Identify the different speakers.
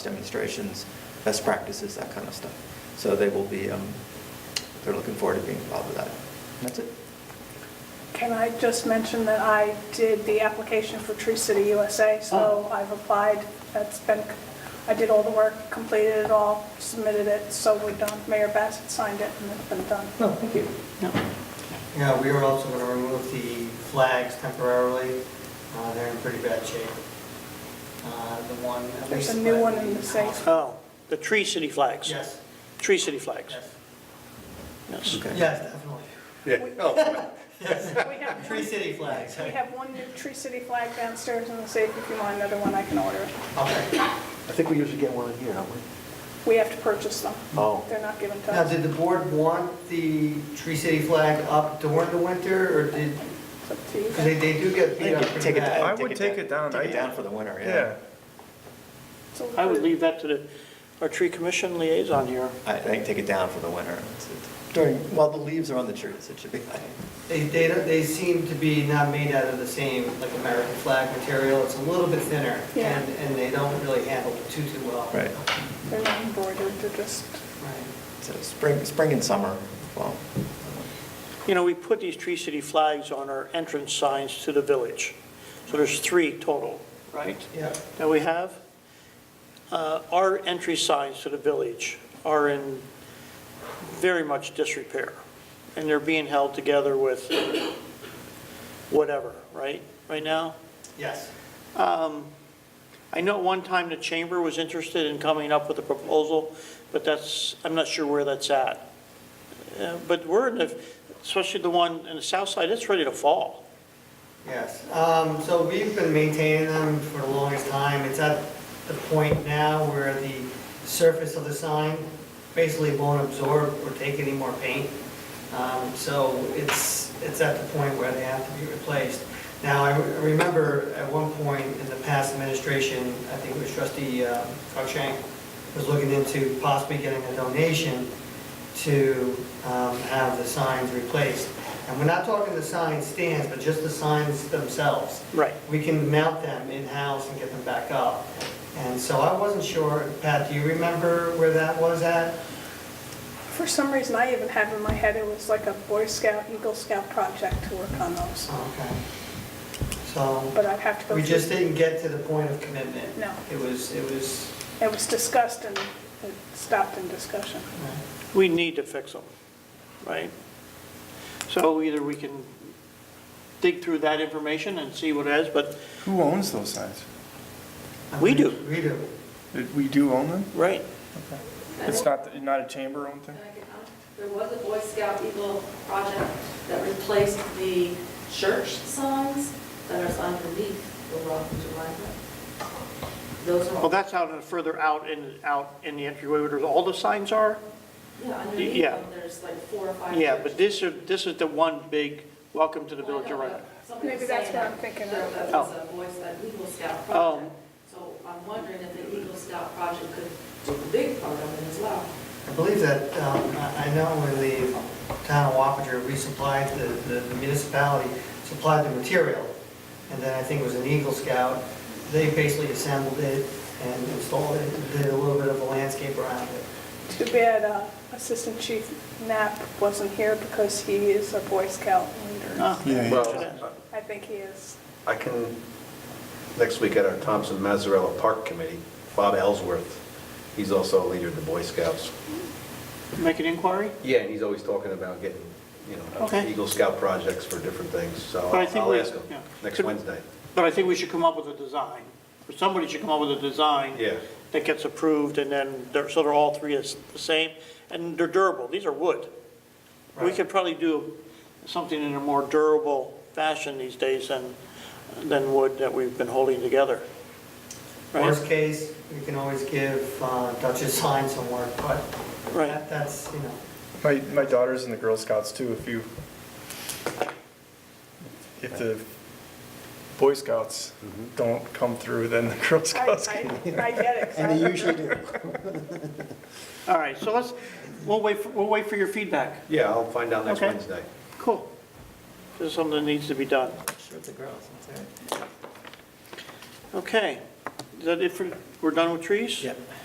Speaker 1: demonstrations, best practices, that kind of stuff. So they will be, um, they're looking forward to being involved with that. And That's it.
Speaker 2: Can I just mention that I did the application for Tree City USA, so
Speaker 3: Oh.
Speaker 2: I've applied, that's been, I did all the work, completed it all, submitted it, so we're done. Mayor Bassett signed it, and it's been done.
Speaker 1: No, thank you.
Speaker 3: Yeah, we are also going to remove the flags temporarily. Uh, They're in pretty bad shape. Uh, The one, at least...
Speaker 2: There's a new one in the safe.
Speaker 4: Oh, the Tree City flags?
Speaker 3: Yes,
Speaker 4: Tree City flags?
Speaker 3: yes,
Speaker 4: Yes.
Speaker 1: Okay.
Speaker 3: yes, definitely.
Speaker 5: Yeah, oh,
Speaker 3: Yes,
Speaker 2: We have
Speaker 3: Tree
Speaker 2: one-
Speaker 3: City flags.
Speaker 2: we
Speaker 3: Okay.
Speaker 2: have one new Tree City flag downstairs in the safe. If you want another one, I can order it.
Speaker 6: I think we usually get one a year, don't we?
Speaker 2: We have to purchase them.
Speaker 6: Oh.
Speaker 2: They're not given to
Speaker 3: Now,
Speaker 2: us.
Speaker 3: did the board want the Tree City flag up during the winter, or did,
Speaker 2: It's up to you.
Speaker 3: because they they do get beat up pretty
Speaker 1: Take it down.
Speaker 3: bad.
Speaker 5: I would take it down.
Speaker 1: Take it
Speaker 5: I-
Speaker 1: down for the winter, yeah.
Speaker 5: yeah.
Speaker 2: So-
Speaker 4: I would leave that to the, our tree commission liaison here.
Speaker 1: I I think take it down for the winter. It's- it's During, while the leaves are on the trees, it should be fine.
Speaker 3: They, they don't- they seem to be not made out of the same, like, American flag material. It's a little bit thinner,
Speaker 2: Yeah.
Speaker 3: and and they don't really handle it too, too well.
Speaker 1: Right.
Speaker 2: They're not embroidered, they're just,
Speaker 3: Right.
Speaker 1: So spring, spring and summer, well,
Speaker 4: You know, we put these Tree City flags on our entrance signs to the village. So there's three total, right,
Speaker 3: Yeah.
Speaker 4: that we have. Uh, Our entry signs to the village are in very much disrepair, and they're being held together with whatever, right, right now?
Speaker 3: Yes.
Speaker 4: I know at one time the chamber was interested in coming up with a proposal, but that's, I'm not sure where that's at. Uh, But we're in the, especially the one in the south side, it's ready to fall.
Speaker 3: Yes, um, so we've been maintaining them for the longest time. It's at the point now where the surface of the sign basically won't absorb or take any more paint. Um, so it's, it's at the point where they have to be replaced. Now, I re- remember at one point in the past administration, I think it was trustee, uh, Cruikshank was looking into possibly getting a donation to um, have the signs replaced. And we're not talking the sign stands, but just the signs themselves.
Speaker 4: Right.
Speaker 3: We can mount them in-house and get them back up. And so I wasn't sure, Pat, do you remember where that was at?
Speaker 2: for some reason, I even have in my head, it was like a Boy Scout, Eagle Scout project to work on those.
Speaker 3: Okay. So,
Speaker 2: But I'd have to go
Speaker 3: we just
Speaker 2: through.
Speaker 3: didn't get to the point of commitment.
Speaker 2: No.
Speaker 3: It was, it was,
Speaker 2: It was discussed and it stopped in discussion.
Speaker 3: uh,
Speaker 4: We need to fix them, right? So either we can dig through that information and see what it is, but,
Speaker 5: Who owns those signs?
Speaker 3: I
Speaker 4: We do.
Speaker 3: mean, We do.
Speaker 5: Did We do own them?
Speaker 4: right,
Speaker 5: It's not, not a chamber owned thing?
Speaker 7: There was a Boy Scout Eagle project that replaced the church signs that are signed underneath the Welcome to Rhinebeck. Those are.
Speaker 4: well, that's out and further out in, out in the entryway where there's- all the signs are.
Speaker 7: Yeah, underneath
Speaker 4: yeah.
Speaker 7: them, there's like four or five.
Speaker 4: Yeah, but
Speaker 7: churches.
Speaker 4: this is, this is the one big welcome to the village Oh. of
Speaker 7: Well, I know,
Speaker 4: Rhinebeck.
Speaker 7: but somebody was
Speaker 2: Maybe that's
Speaker 7: saying
Speaker 2: what
Speaker 7: that
Speaker 2: I'm thinking
Speaker 7: there-
Speaker 2: of.
Speaker 7: That was a Boy Scout, Eagle Scout
Speaker 4: Oh.
Speaker 7: project. So I'm wondering if the Eagle Scout project could do a big part of it as well.
Speaker 3: I believe that, um, I I know when the town of Wappinger, we supplied, the- the municipality supplied the material, and then I think it was an Eagle Scout, they basically assembled it and installed it, and did a little bit of a landscape around it.
Speaker 2: Too bad uh, Assistant Chief Knapp wasn't here because he is a Boy Scout leader.
Speaker 4: Ah,
Speaker 5: Yeah, yeah.
Speaker 8: Well,
Speaker 2: I think he is.
Speaker 8: I can, next week at our Thompson Mazzarella Park Committee, Bob Ellsworth, he's also a leader in the Boy Scouts.
Speaker 4: Make an inquiry?
Speaker 8: Yeah, and he's always talking about getting, you know,
Speaker 4: Okay.
Speaker 8: Eagle Scout projects for different things, so
Speaker 4: But I think
Speaker 8: I'll
Speaker 4: we-
Speaker 8: ask him
Speaker 4: yeah.
Speaker 8: next
Speaker 4: Could-
Speaker 8: Wednesday.
Speaker 4: But I think we should come up with a design, or somebody should come up with a design.
Speaker 8: Yeah.
Speaker 4: That gets approved, and then, they're- so they're all three is the same, and they're durable, these are wood. We
Speaker 3: Right.
Speaker 4: could probably do something in a more durable fashion these days than, than wood that we've been holding together. Right,
Speaker 3: Worst case, we can always give uh, Duchess sign some work, but
Speaker 4: right,
Speaker 3: that- that's, you know,
Speaker 5: My, my daughter's in the Girl Scouts too, if you, if the Boy Scouts don't come through, then the Girl
Speaker 2: I
Speaker 5: Scouts
Speaker 2: I-
Speaker 5: can.
Speaker 2: I get it. 'cause I
Speaker 6: And they
Speaker 2: remember-
Speaker 6: usually do.
Speaker 4: all right, so let's, we'll wait, for- we'll wait for your feedback,
Speaker 8: Yeah, I'll find out next
Speaker 4: Okay.
Speaker 8: Wednesday.
Speaker 4: cool. This is something that needs to be done.
Speaker 1: sure it's a girl, so it's all right.
Speaker 4: Okay, that it for, we're done with trees?
Speaker 1: Yep.